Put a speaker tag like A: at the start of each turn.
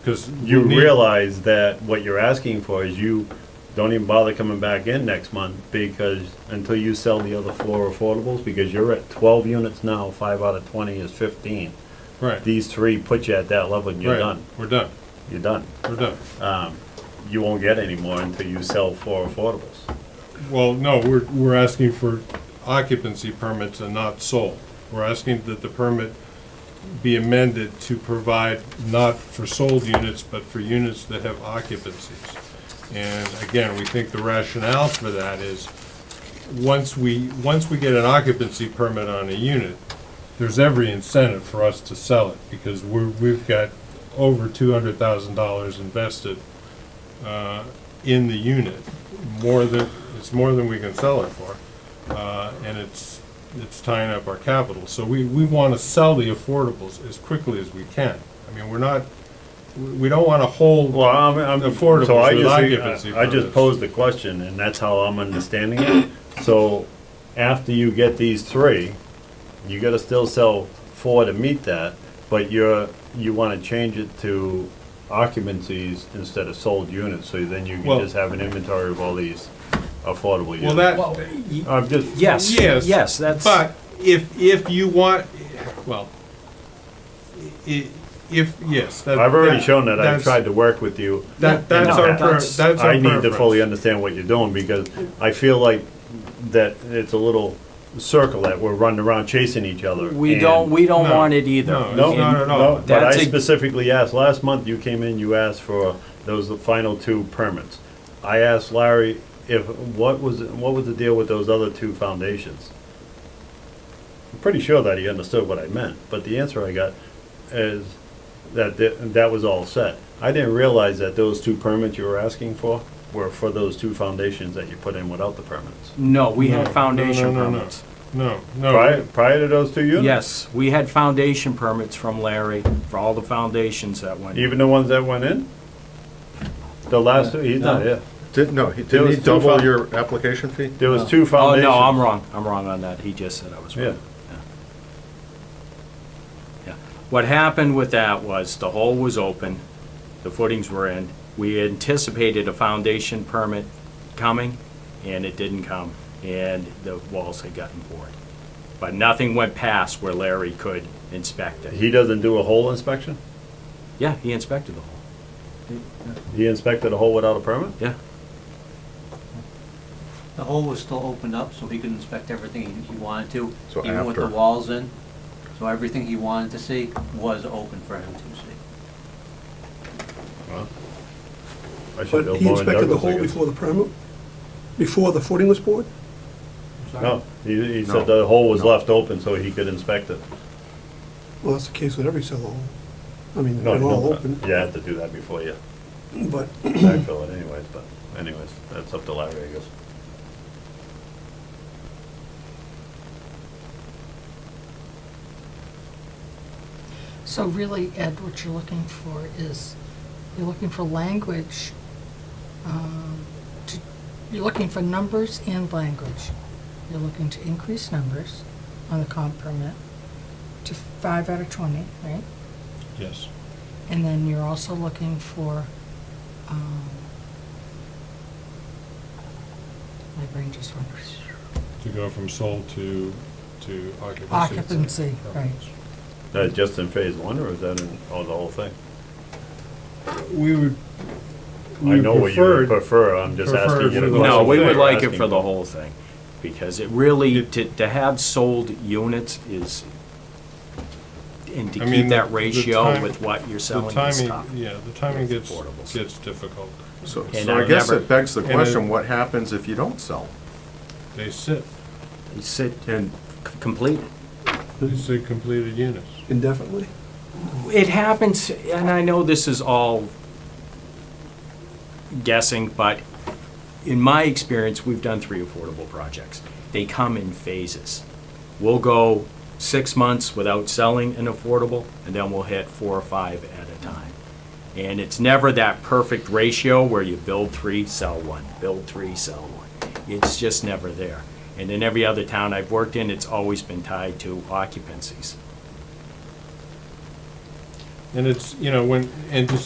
A: Because you
B: We need-
A: realize that what you're asking for is you don't even bother coming back in next month because until you sell the other four affordables, because you're at twelve units now, five out of twenty is fifteen.
B: Right.
A: These three put you at that level and you're
B: right.
A: done,
B: We're done.
A: you're done.
B: We're done.
A: You won't get any more until you sell four affordables.
B: Well, no, we're, we're asking for occupancy permits and not sold. We're asking that the permit be amended to provide not for sold units, but for units that have occupancies. And again, we think the rationale for that is, once we, once we get an occupancy permit on a unit, there's every incentive for us to sell it, because we're, we've got over two hundred thousand dollars invested uh, in the unit, more than, it's more than we can sell it for. Uh, And it's, it's tying up our capital. So we, we want to sell the affordables as quickly as we can. I mean, we're not, we we don't want to hold,
A: Well, um, I'm, I'm.
B: Affordables
A: so I
B: with
A: just-
B: occupancy
A: I I just
B: permits.
A: posed the question and that's how I'm understanding it. So after you get these three, you gotta still sell four to meet that, but you're, you wanna change it to occupancies instead of sold units, so then you can
B: Well-
A: just have an inventory of all these affordable
B: well,
A: units.
B: that,
C: Well, y-
A: I'm just.
C: yes,
B: Yes,
C: yes, that's,
B: But if, if you want, well, i- if, yes. that-
A: I've already
B: that-
A: shown that, I've
B: that's-
A: tried to work with you.
B: That, that's
C: No,
B: our, per-
C: that's-
B: that's our
A: I need to
B: preference.
A: fully understand what you're doing, because I feel like that it's a little circle that we're running around chasing each other.
C: we
A: and-
C: don't, we don't
B: No,
C: want it either.
B: no,
A: No,
B: it's not at all.
A: no, but I
C: That's a-
A: specifically asked, last month you came in, you asked for those final two permits. I asked Larry if, what was, what was the deal with those other two foundations? I'm pretty sure that he understood what I meant, but the answer I got is that th- that was all set. I didn't realize that those two permits you were asking for were for those two foundations that you put in without the permits.
C: No, we
B: No,
C: had foundation
B: no, no, no, no.
C: permits.
B: No,
A: Prior,
B: no,
A: prior to those two units?
C: Yes, we had foundation permits from Larry for all the foundations that went.
A: Even the ones that went in? The last, two he's not
C: No.
A: here.
D: Didn't, no, he-
A: There
D: didn't
A: was
D: he
A: two
D: double
A: fun-
D: your application fee?
A: There was two
C: Oh,
A: foundations.
C: no, I'm wrong, I'm wrong on that, he just said I was
A: Yeah.
C: wrong. Yeah. What happened with that was, the hole was open, the footings were in, we anticipated a foundation permit coming, and it didn't come, and the walls had gotten bored. But nothing went past where Larry could inspect it.
A: He doesn't do a hole inspection?
C: Yeah, he inspected the hole,
A: He inspected a hole without a permit?
C: yeah.
E: The hole was still opened up, so he could inspect everything he- he wanted to,
D: So
E: even with the
D: after.
E: walls in. So everything he wanted to see was open for him to see.
A: I should
F: But
A: build
F: he
A: more in
F: inspected
A: Douglas, I
F: the hole
A: guess.
F: before the permit, before the footing was poured?
A: No, he, he said
D: No.
A: the hole was left open so he could inspect it.
F: Well, that's the case with every cellar hole. I mean,
A: No,
F: they're
A: you
F: all
A: don't-
F: open,
A: You have to do that before you
F: but
A: backfill it anyways, but anyways, that's up to Larry, I guess.
G: So really, Ed, what you're looking for is, you're looking for language, um, to- you're looking for numbers and language. You're looking to increase numbers on the comp permit to five out of 20, right?
B: yes.
G: And then you're also looking for, um, my brain just went,
B: To go from sold to, to occupancy.
G: occupancy, right?
A: That just in phase one or is that in, oh, the whole thing?
B: We would.
A: I
B: we
A: know what you would
B: preferred-
A: prefer, I'm just
B: prefer
A: asking you
B: for
A: the
B: the
A: question.
C: No, we
B: thing.
C: would like it
A: Asking
C: for the
A: you.
C: whole thing, because it really, to, to have sold units is, and to
B: I mean,
C: keep
B: the-
C: that
B: the
C: ratio
B: time-
C: with what you're
B: The
C: selling is tough.
B: timing, yeah, the timing gets,
C: Affordables.
B: gets difficult.
D: So,
C: And
D: so I
C: I've
D: guess
C: never-
D: it begs the
B: and I-
D: question, what happens if you don't sell?
B: They sit,
C: You Sit and c- complete.
B: they sit completed units.
F: indefinitely.
C: It happens, and I know this is all guessing, but in my experience, we've done three affordable projects. They come in phases. We'll go six months without selling an affordable, and then we'll hit four or five at a time. And it's never that perfect ratio where you build three, sell one, build three, sell one. It's just never there. And in every other town I've worked in, it's always been tied to occupancies.
B: And it's, you know, when, and to